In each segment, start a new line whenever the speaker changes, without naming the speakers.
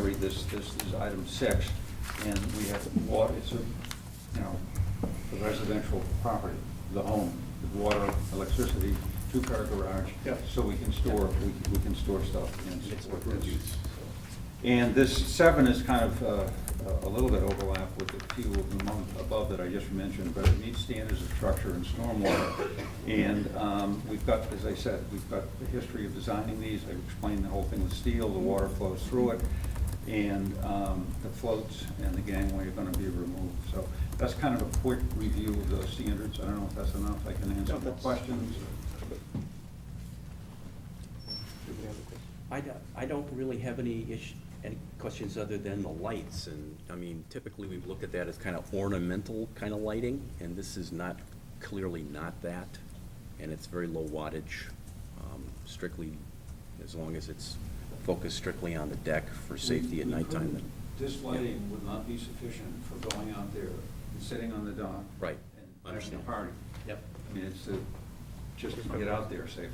this, this is item six, and we have water, it's a, you know, a residential property, the home, the water, electricity, two-car garage.
Yep.
So we can store, we, we can store stuff and
It's
support
what it
this.
is.
And this seven is kind of uh, a little bit overlap with the few of the month above that I just mentioned, but it meets standards of structure and stormwater. And um, we've got, as I said, we've got the history of designing these, I explained the whole thing with steel, the water flows through it, and um, the floats and the gangway are gonna be removed. So that's kind of a quick review of those standards, I don't know if that's enough, I can answer
No,
more
that's-
questions.
I don't, I don't really have any issue, any questions other than the lights, and, I mean, typically, we've looked at that as kind of ornamental kind of lighting, and this is not, clearly not that, and it's very low wattage, um, strictly, as long as it's focused strictly on the deck for safety at
We- we
nighttime, then,
couldn't- This lighting would not be sufficient for going out there and sitting on the dock.
Right.
And having a
Understand.
party.
Yep.
I mean, it's to, just to get out there safely,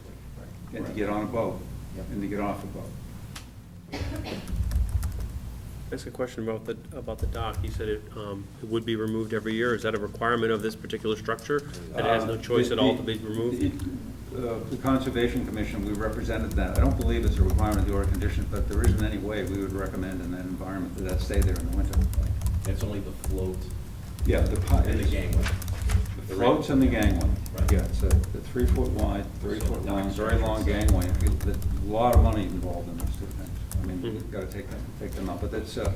and to get on a boat,
Yep.
and to get off a boat.
Ask a question about the, about the dock. You said it, um, it would be removed every year. Is that a requirement of this particular structure? That it has no
Uh,
choice
the-
at all
the-
to be removed?
it- uh, The Conservation Commission, we represented that. I don't believe it's a requirement of the order condition, but there isn't any way we would recommend in that environment that that stay there in the winter.
That's only the float
Yeah, the. pi-
and the
it's-
gangway.
The floats and the gangway.
Right.
Yeah, it's a the three foot wide, three foot long, very long gangway. If you- there's A lot of money involved in those two things. I mean, you've
Mhm.
got to take them, take them up, but it's uh,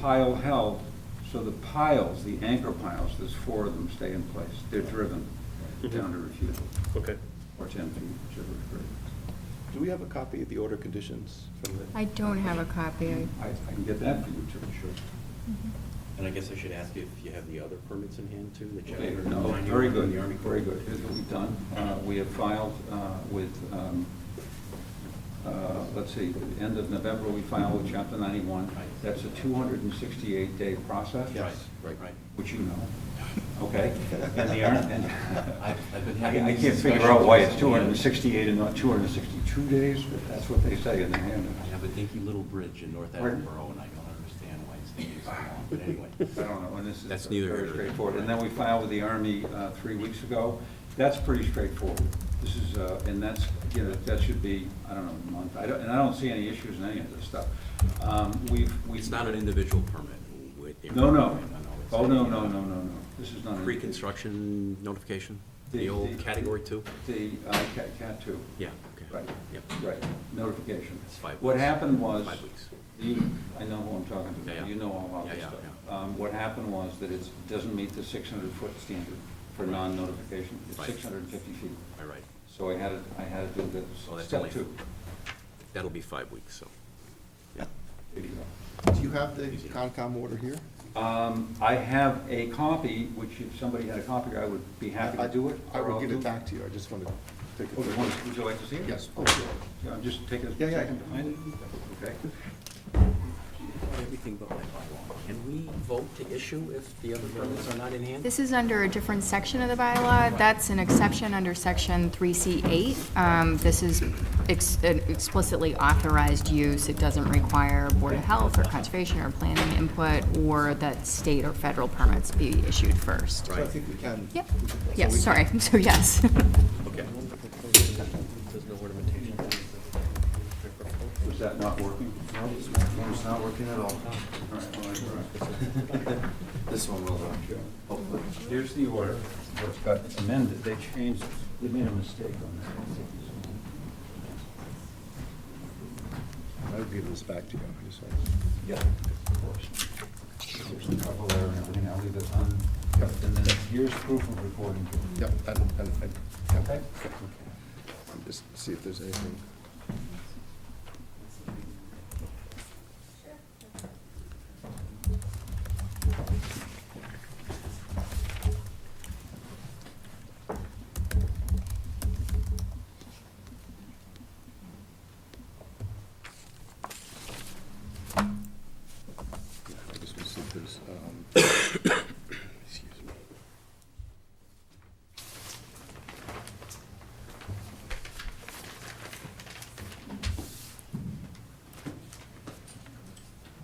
pile held. So the piles, the anchor piles, there's four of them stay in place. They're driven
Mhm.
down to refusal
Okay.
or ten feet, whichever is greater.
Do we have a copy of the order conditions from the?
I don't have a copy. I-
I I can get that for you, Jim.
Mm-hmm.
And I guess I should ask you if you have the other permits in hand, too, that you
Okay,
have.
No,
Mine, you
very
have
good,
The Army Corps.
very good. Here's what we've done. Uh, We have filed uh, with, um, uh, let's see, at the end of November, we filed with Chapter 91.
Right.
That's a 268-day process.
Right, right, right.
Which you know, okay? And the Army, and...
I've- I've been
I-
having
I
these
can't figure
discussions
out why
with
it's
someone.
268 and not 262 days, but that's what they say in the
I
handbook.
have a dinky little bridge in North
Pardon?
Attleboro, and I don't understand why it's taking so long, but anyway.
I don't know, and this is.
That's neither here
Very
nor there.
straightforward. And then we filed with the Army uh, three weeks ago. That's pretty straightforward. This is, uh, and that's, you know, that should be, I don't know, a month. I don't, and I don't see any issues in any of this stuff. Um, We've, we've.
It's not an individual permit. with the-
No, no.
it's
Oh, no,
a,
no,
uh,
no, no, no. This is not. an-
Pre-construction notification, the
The-
old
the-
category two?
The uh, Cat, Cat two.
Yeah, okay.
Right.
Yep.
Right, notification.
It's five
What
weeks.
happened was.
Five weeks.
You, I know who I'm talking
Yeah, yeah.
to, you know all about
Yeah,
this
yeah,
stuff. Um, What happened was that it doesn't meet the six hundred foot standard for non-notification, it's
Right.
six hundred and fifty feet.
All right.
So I had, to- I had to do
So
the
Oh, that's
step
only-
two.
That'll be five weeks, so. yeah.
There you go.
Do you have the Concom order here?
Um, I have a copy, which if somebody had a copy, I would be happy to do it.
I
or I'll
will give
do-
it back to you, I just want to take
Oh, you
it.
want- Would you like to see it?
Yes.
Oh, sure. Yeah, I'm just taking a
Yeah, yeah, I
second to
can-
find it. Okay.
Everything but my bylaw. Can we vote to issue if the other permits are not in hand?
This is under a different section of the bylaw. That's an exception under section 3C8. Um, This is ex- an explicitly authorized use. It doesn't require Board of Health or Conservation or planning input, or that state or federal permits be issued first.
So I think we can.
Yep,
we can- so we
yes,
can-
sorry, so yes.
Okay.
Was that not working?
No, this one's not working at all.
All right, well, I- all right.
This one
uh,
will, though, hopefully.
Here's the order, what's got amended, they changed, they made a mistake on that.
I'll give this back to you. I just want-
Yeah, of course. There's a couple there and everything, I'll leave it on, and then here's proof of recording.
Yep, and, and, and- yeah.
Okay?
Just see if there's anything. um,